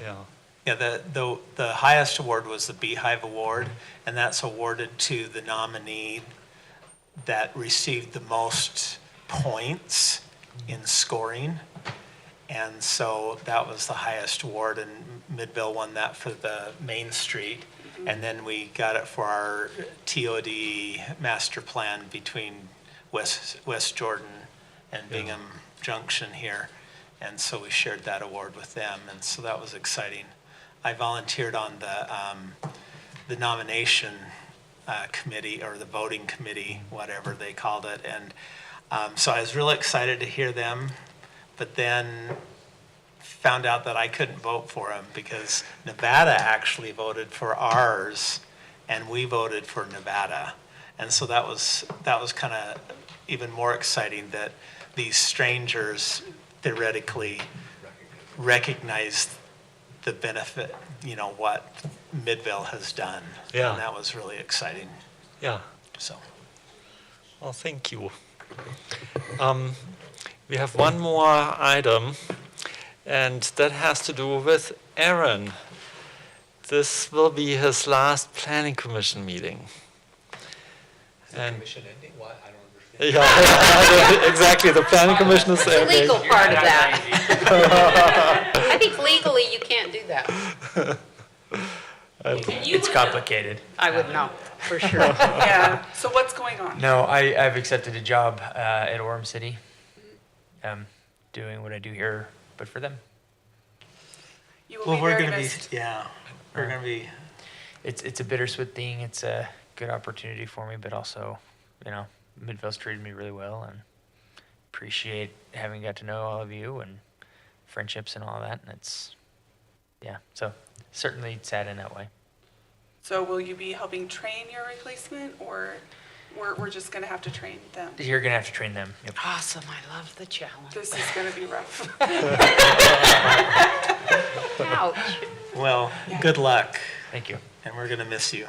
Yeah, yeah, the, the, the highest award was the Beehive Award, and that's awarded to the nominee that received the most points in scoring. And so that was the highest award, and Midville won that for the Main Street. And then we got it for our TOD master plan between West, West Jordan and Bingham Junction here. And so we shared that award with them, and so that was exciting. I volunteered on the, um, the nomination uh, committee or the voting committee, whatever they called it. And um, so I was really excited to hear them, but then found out that I couldn't vote for them because Nevada actually voted for ours and we voted for Nevada. And so that was, that was kind of even more exciting that these strangers theoretically recognized the benefit, you know, what Midvale has done. Yeah. And that was really exciting, Yeah, so. well, thank you. Um, we have one more item, and that has to do with Aaron. This will be his last planning commission meeting. And- commission ending? Why? I don't understand. Yeah, exactly. The planning commission is The ending. legal part of that. I think legally you can't do that. It's complicated. I would know, for sure. Yeah, so what's going on? No, I, I've accepted a job uh, at Orem City, um, doing what I do here, but for them. You will Well, be we're very gonna be, missed. yeah, we're gonna be, It's it's a bittersweet thing. It's a good opportunity for me, but also, you know, Midvale's treated me really well, and appreciate having got to know all of you and friendships and all that. And it's, yeah, so certainly sad in that way. So will you be helping train your replacement, or we're, we're just gonna have to train them? You're gonna have to train them. Yep. Awesome, I love the challenge. This is gonna be rough. Ouch. well, good luck, Thank you. and we're gonna miss you.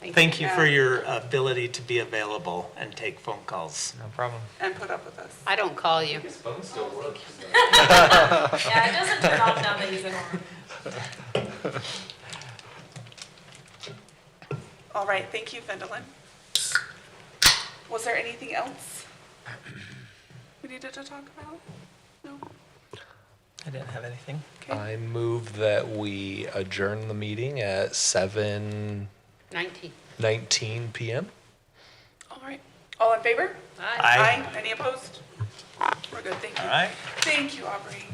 Thank Thank you. you for your ability to be available and take phone calls. No problem. And put up with us. I don't call you. Yeah, it doesn't turn off now that he's in Oregon. All right, thank you, Vendelin. Was there anything else we needed to talk about? No? I didn't have anything. I move that we adjourn the meeting at seven 19. nineteen PM. All right. All in favor? Aye. Aye. Any opposed? We're good, thank you. All right. Thank you, Aubrey.